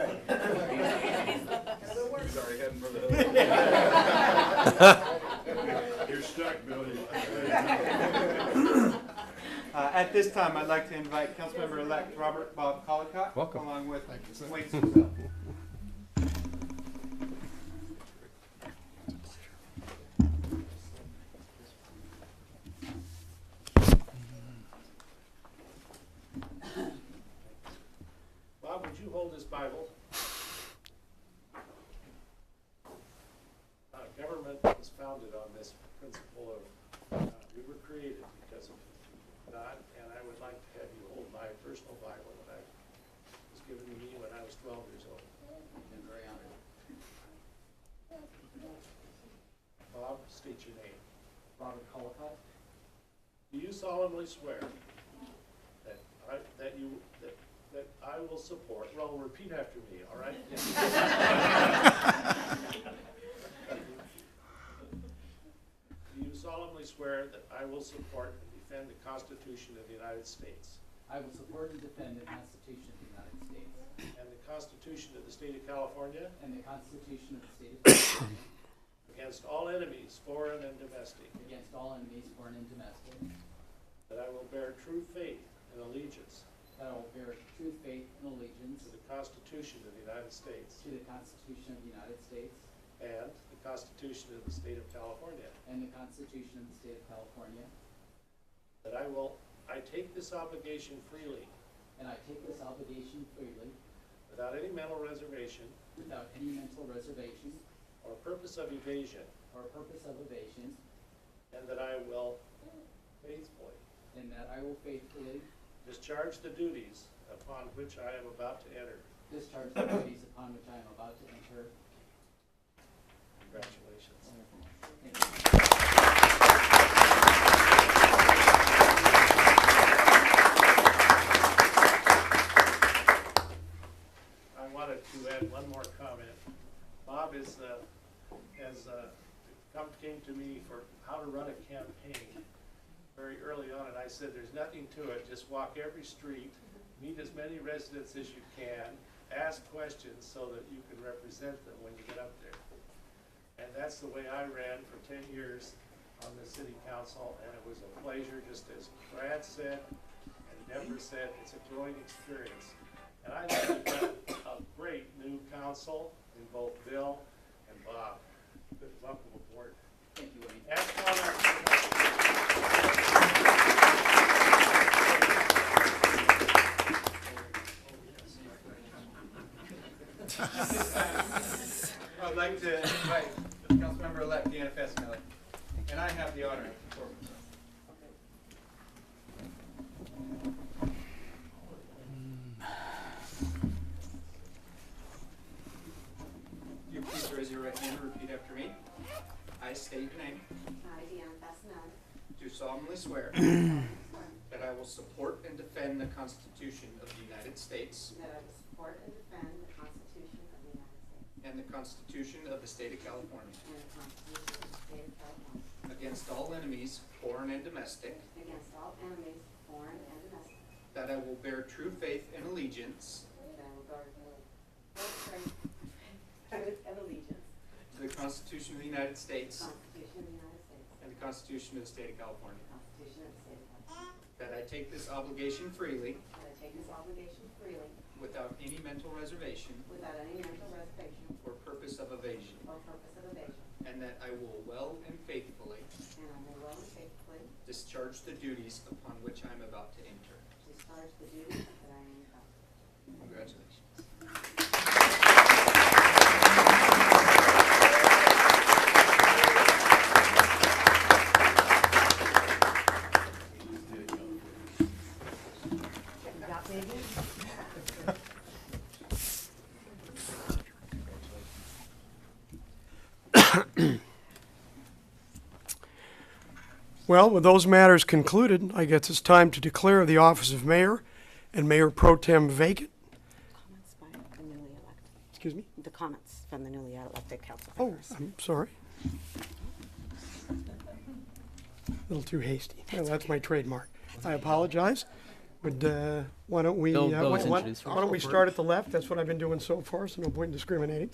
for the. You're stuck, Billy. Uh, At this time, I'd like to invite Councilmember-elect Robert Bob Colacott. Welcome. Along with Wayne Sisdall. Bob, would you hold this Bible? Uh, Government was founded on this principle of, uh, we were created because of God, and I would like to have you hold my personal Bible that I was given to me when I was twelve years old. And very honored. Bob, state your name. Robert Colacott. Do you solemnly swear that I, that you, that, that I will support, well, repeat after me, all right? Do you solemnly swear that I will support and defend the Constitution of the United States I will support and defend the Constitution of the United States and the Constitution of the State of California and the Constitution of the State of California against all enemies, foreign and domestic, against all enemies, foreign and domestic, that I will bear true faith and allegiance that I will bear true faith and allegiance to the Constitution of the United States to the Constitution of the United States and the Constitution of the State of California, and the Constitution of the State of California, That I will, I take this obligation freely, and I take this obligation freely without any mental reservation without any mental reservation or purpose of evasion, or purpose of evasion, and that I will faithfully and that I will faithfully discharge the duties upon which I am about to enter. discharge the duties upon which I am about to enter. Congratulations. Thank you. I wanted to add one more comment. Bob is, uh, has, uh, come, came to me for how to run a campaign very early on, and I said, there's nothing to it, just walk every street, meet as many residents as you can, ask questions so that you can represent them when you get up there. And that's the way I ran for ten years on the city council, and it was a pleasure, just as Brad said, and Deborah said, it's a growing experience. And I think we've got a great new council in both Bill and Bob. Good luck with the board. Thank you, Wayne. Ask all our- I'd like to invite Councilmember-elect Deanna Fessmiller, and I have the honor of performing. Will You please raise your right hand and repeat after me. I state your name, I, Deanna Fastenal, do solemnly swear that that I will support and defend the Constitution of the United States I will support and defend the Constitution of the United States and the Constitution of the State of California and the Constitution of the State of California against all enemies, foreign and domestic, against all enemies, foreign and domestic, that I will bear true faith and allegiance that I will guard the oath of allegiance, to the Constitution of the United the States Constitution of the United States, and the Constitution of the State of California, the Constitution of the State of California, that I take this obligation freely that I take this obligation freely without any mental reservation without any mental reservation or purpose of evasion, or purpose of evasion, and that I will well and faithfully and I will well and faithfully discharge the duties upon which I am about to enter. discharge the duties that I am about to Congratulations. Well, with those matters concluded, I guess it's time to declare the office of mayor and mayor pro tem vacant. Comments by the newly elected, Excuse me? the comments from the newly elected council Oh, I'm sorry. A little too hasty. Well, that's my trademark. I apologize. But uh, why don't we, Bill- uh, Bill why was why- introduced why don't we start at the left? That's what I've been doing so far, so no point in discriminating.